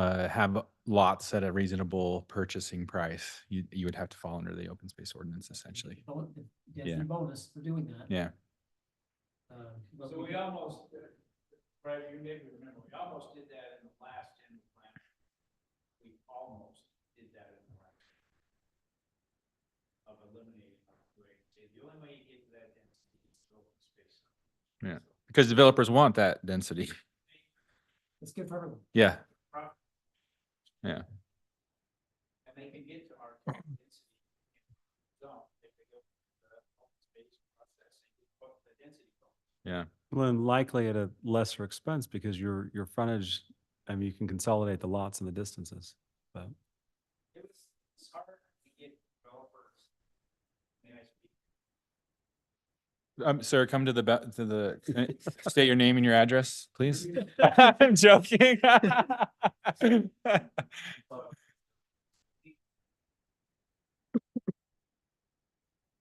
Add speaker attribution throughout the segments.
Speaker 1: uh, have lots at a reasonable purchasing price, you, you would have to fall under the open space ordinance essentially.
Speaker 2: Bon-
Speaker 1: Yeah.
Speaker 2: Density bonus for doing that.
Speaker 1: Yeah.
Speaker 2: Uh, but
Speaker 3: So
Speaker 2: we-
Speaker 3: we almost, did- Brad, you maybe remember, we almost did that in the last general plan. We almost did that in the last. Of eliminating upgrade, See, the only way you get to that density is to open space. up.
Speaker 1: Yeah.
Speaker 3: So
Speaker 1: Because developers want that density.
Speaker 2: It's good for everyone.
Speaker 1: Yeah,
Speaker 3: pro-
Speaker 1: Yeah.
Speaker 3: And they can get to our target density. Zone, if they go to the open space process and get what the density. goal.
Speaker 4: Well, and likely at a lesser expense because your, your frontage, I mean, you can consolidate the lots and the distances. But
Speaker 3: It was, it's hard to get developers. May I speak?
Speaker 1: um, sir, come to the, ba- to the, can I- state your name and your address, please. I'm joking.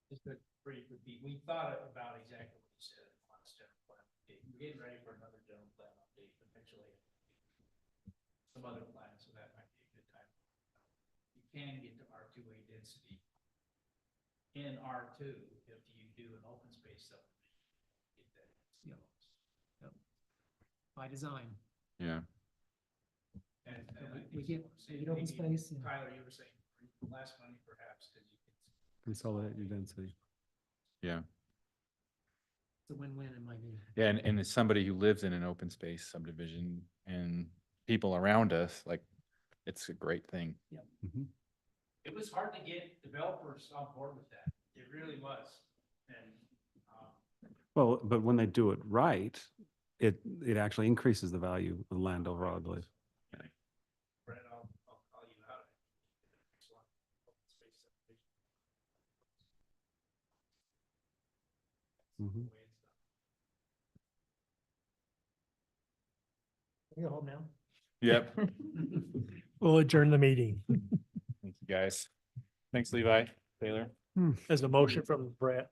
Speaker 3: Just a brief repeat, we thought about exactly what you said in the last general plan. update. We're getting ready for another general plan update potentially. Some other plan, so that might be a good time. You can get to R two A density. In R two, if you do an open space subdivision. Get that.
Speaker 2: Yeah. By design.
Speaker 1: Yeah,
Speaker 3: And and I
Speaker 2: We-
Speaker 3: think
Speaker 2: we
Speaker 3: you
Speaker 2: get-
Speaker 3: were
Speaker 2: we
Speaker 3: saying
Speaker 2: get open
Speaker 3: maybe-
Speaker 2: space, yeah.
Speaker 3: Tyler, you were saying less money perhaps, cause you can
Speaker 4: consolidate your density.
Speaker 1: yeah.
Speaker 2: It's a win-win in my view.
Speaker 1: Yeah, and, and as somebody who lives in an open space subdivision and people around us, like, it's a great thing.
Speaker 4: Mhm.
Speaker 3: it was hard to get developers on board with that. It really was. And, um,
Speaker 4: Well, but when they do it right, it, it actually increases the value of the land overall, I believe.
Speaker 3: Brett, I'll, I'll call you out. Excellent. Open space subdivision.
Speaker 4: Mhm.
Speaker 3: Way it's done.
Speaker 2: Can you go home now?
Speaker 1: Yep.
Speaker 5: We'll adjourn the meeting.
Speaker 1: Thank you, guys. Thanks, Levi, Taylor.
Speaker 5: There's a motion from Brett.